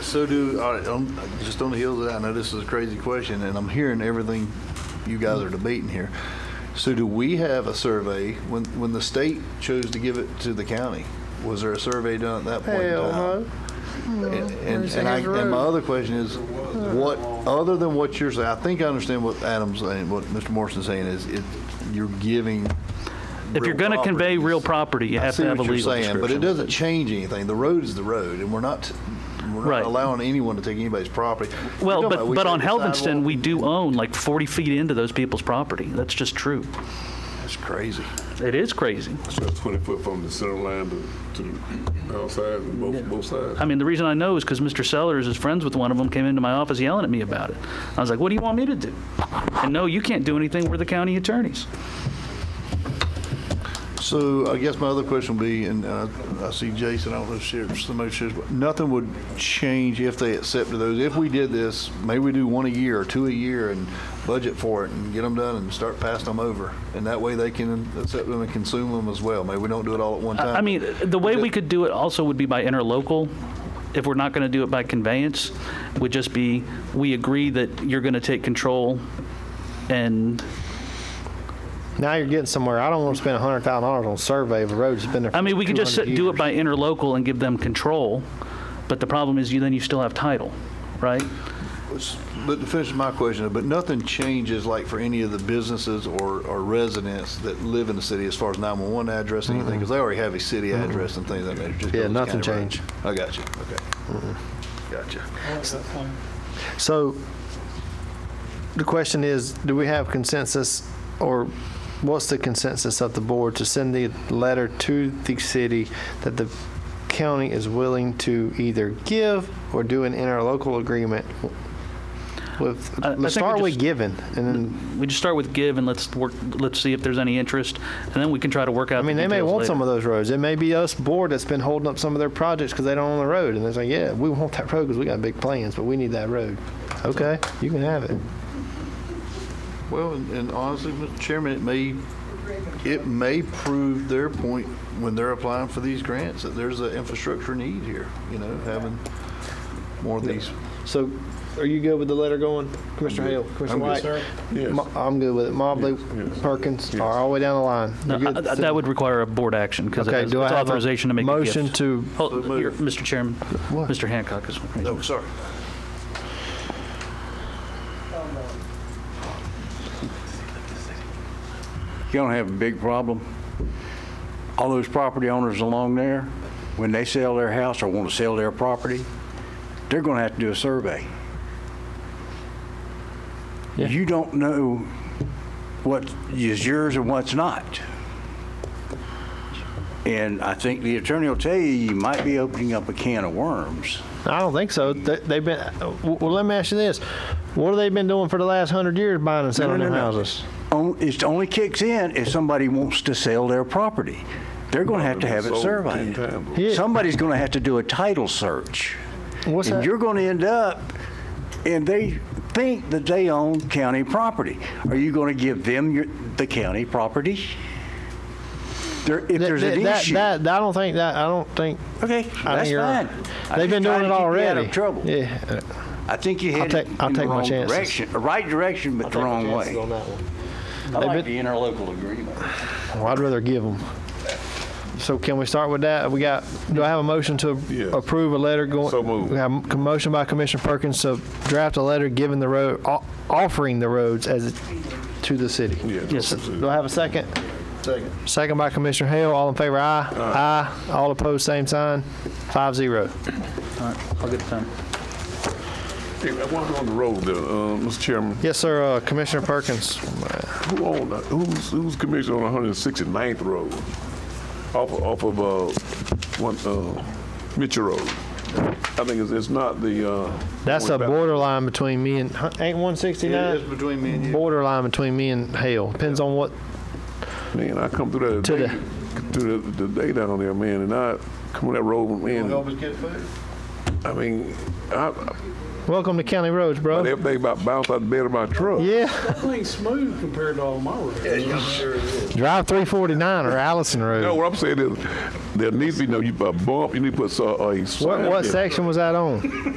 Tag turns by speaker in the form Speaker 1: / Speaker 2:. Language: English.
Speaker 1: So do, all right, um, just on the heels of that, I know this is a crazy question, and I'm hearing everything you guys are debating here. So do we have a survey, when, when the state chose to give it to the county, was there a survey done at that point in
Speaker 2: Hell
Speaker 1: time?
Speaker 2: no.
Speaker 1: And- And,
Speaker 2: Where's the
Speaker 1: and I,
Speaker 2: road?
Speaker 1: and my other question is, what, other than what you're saying, I think I understand what Adam's saying, what Mr. Morrison's saying is, it, you're giving.
Speaker 3: If you're
Speaker 1: real
Speaker 3: going to convey
Speaker 1: properties.
Speaker 3: real property, you
Speaker 1: I
Speaker 3: have
Speaker 1: see
Speaker 3: to have a
Speaker 1: what you're
Speaker 3: legal
Speaker 1: saying, but it
Speaker 3: description.
Speaker 1: doesn't change anything. The road is the road, and we're not, we're not
Speaker 3: Right.
Speaker 1: allowing anyone to take anybody's property. You're
Speaker 3: Well,
Speaker 1: talking about
Speaker 3: but,
Speaker 1: we
Speaker 3: but
Speaker 1: take
Speaker 3: on
Speaker 1: the
Speaker 3: Helvinston,
Speaker 1: sidewalk.
Speaker 3: we do own like 40 feet into those people's property. That's just true.
Speaker 1: That's crazy.
Speaker 3: It is crazy.
Speaker 4: So 20 foot from the center line to, to the outside and both, both sides.
Speaker 3: I mean, the reason I know is because Mr. Sellers is friends with one of them, came into my office yelling at me about it. I was like, what do you want me to do? And no, you can't do anything, we're the county attorneys.
Speaker 1: So I guess my other question would be, and uh, I see Jason, I don't know if she's the most, she's- nothing would change if they accepted those. If we did this, maybe we do one a year or two a year and budget for it and get them done and start passing them over. And that way they can accept them and consume them as well. Maybe we don't do it all at one time.
Speaker 3: I mean, the way we could do it also would be by interlocal. If we're not going to do it by conveyance, would just be, we agree that you're going to take control and,
Speaker 2: Now you're getting somewhere. I don't want to spend hundred thousand dollars on a survey of a road that's been there.
Speaker 3: I mean,
Speaker 2: for
Speaker 3: we could just
Speaker 2: 200
Speaker 3: do it
Speaker 2: years.
Speaker 3: by interlocal and give them control, but the problem is you, then you still have title, right?
Speaker 1: But to finish my question, but nothing changes like for any of the businesses or, or residents that live in the city as far as 911 address and anything, because they already have a city address and things like that. It just
Speaker 2: Mm-hmm. Yeah,
Speaker 1: goes to
Speaker 2: nothing
Speaker 1: county roads.
Speaker 2: changed. Mm-hmm.
Speaker 1: I got you, okay. Gotcha.
Speaker 2: So the question is, do we have consensus or what's the consensus of the board to send the letter to the city that the county is willing to either give or do an interlocal agreement with,
Speaker 3: I- I
Speaker 2: let's
Speaker 3: think we
Speaker 2: start with
Speaker 3: just-
Speaker 2: giving and then,
Speaker 3: We just start with give and let's work, let's see if there's any interest, and then we can try to work out
Speaker 2: I mean,
Speaker 3: the
Speaker 2: they may
Speaker 3: details
Speaker 2: want some
Speaker 3: later.
Speaker 2: of those roads. It may be us board that's been holding up some of their projects because they don't own the road and they're like, yeah, we want that road because we got big plans, but we need that road. Okay, you can have it.
Speaker 1: Well, and and honestly, Mr. Chairman, it may, it may prove their point when they're applying for these grants, that there's an infrastructure need here, you know, having more of these.
Speaker 2: So, are you good with the letter going, Commissioner Hale, Commissioner
Speaker 1: I'm good,
Speaker 2: White?
Speaker 4: Yes.
Speaker 2: Mo- I'm good with it. Mobley,
Speaker 4: yes,
Speaker 2: Perkins,
Speaker 4: yes.
Speaker 2: all the way down the line.
Speaker 3: No,
Speaker 2: You're good?
Speaker 3: I- I- That would require a board action, because
Speaker 2: Okay,
Speaker 3: it's
Speaker 2: do I have a
Speaker 3: authorization to make a gift.
Speaker 2: motion to-
Speaker 3: Hold-
Speaker 1: So
Speaker 3: here,
Speaker 1: moved.
Speaker 3: Mr. Chairman, Mr. Hancock is.
Speaker 1: Oh, sorry.
Speaker 5: you're going to have a big problem. All those property owners along there, when they sell their house or want to sell their property, they're going to have to do a survey. You don't know what is yours and what's not. And I think the attorney will tell you, you might be opening up a can of worms.
Speaker 2: I don't think so. They- They've been, uh, well, let me ask you this. What have they been doing for the last hundred years, buying and selling
Speaker 5: no,
Speaker 2: their
Speaker 5: no.
Speaker 2: houses?
Speaker 5: On- It only kicks in if somebody wants to sell their property. They're going to have to have it
Speaker 4: Sold 10
Speaker 5: surveyed.
Speaker 4: times.
Speaker 2: Yeah.
Speaker 5: Somebody's going to have to do a title search.
Speaker 2: What's
Speaker 5: and
Speaker 2: that?
Speaker 5: you're going to end up, and they think that they own county property. Are you going to give them your, the county property? There, if
Speaker 2: That-
Speaker 5: there's
Speaker 2: that-
Speaker 5: an
Speaker 2: that-
Speaker 5: issue,
Speaker 2: That, that- I don't think that, I don't think.
Speaker 5: okay,
Speaker 2: I
Speaker 5: that's
Speaker 2: think you're-
Speaker 5: fine. I'm
Speaker 2: They've
Speaker 5: just
Speaker 2: been doing it
Speaker 5: trying to keep you
Speaker 2: already.
Speaker 5: out of trouble.
Speaker 2: Yeah.
Speaker 5: I think you had
Speaker 2: take-
Speaker 5: it
Speaker 2: I'll
Speaker 5: in the
Speaker 2: take my
Speaker 5: wrong
Speaker 2: chances.
Speaker 5: direction, right direction, but the wrong way. I
Speaker 2: They've
Speaker 5: like
Speaker 2: been-
Speaker 5: the interlocal agreement.
Speaker 2: Well, I'd rather give them. So can we start with that? We got, do I have a motion to
Speaker 4: Yes.
Speaker 2: approve a letter going?
Speaker 4: So moved.
Speaker 2: We have a motion by Commissioner Perkins to draft a letter giving the road, o- offering the roads as, to the city.
Speaker 3: Yes, sir.
Speaker 2: Do I have a second? Second. Second by Commissioner Hale. All in favor, aye. Aye. All opposed, same sign. Five zero.
Speaker 3: All right, I'll get it done.
Speaker 4: Hey, I want on the road there, uh, Mr. Chairman.
Speaker 2: Yes, sir, uh, Commissioner Perkins.
Speaker 4: Who owned, that? who's, who's commissioner on 169th Road? Off, of- off of, uh, one, uh, Mitchell Road. I think it's, it's not the, uh.
Speaker 2: That's a
Speaker 4: going back-
Speaker 2: borderline between me and, huh, ain't one
Speaker 1: It is
Speaker 2: sixty-nine?
Speaker 1: between me and you.
Speaker 2: Borderline between me and Hale. Depends on what
Speaker 4: Man, I come through that
Speaker 2: To
Speaker 4: day, through the, the day down there, man, and I come on that road, man,
Speaker 1: us get food?
Speaker 4: I mean, I,
Speaker 2: Welcome to County Roads,
Speaker 4: I,
Speaker 2: bro.
Speaker 4: everything about bounce out the bed of my truck.
Speaker 2: Yeah.
Speaker 6: That thing's smooth compared to all my roads.
Speaker 2: Drive 349 or Allison Road.
Speaker 4: No, what I'm saying is, there needs to be no, you put uh, a uh, bump, you need to put so- a.
Speaker 2: what, what
Speaker 4: sign there.
Speaker 2: section was that on?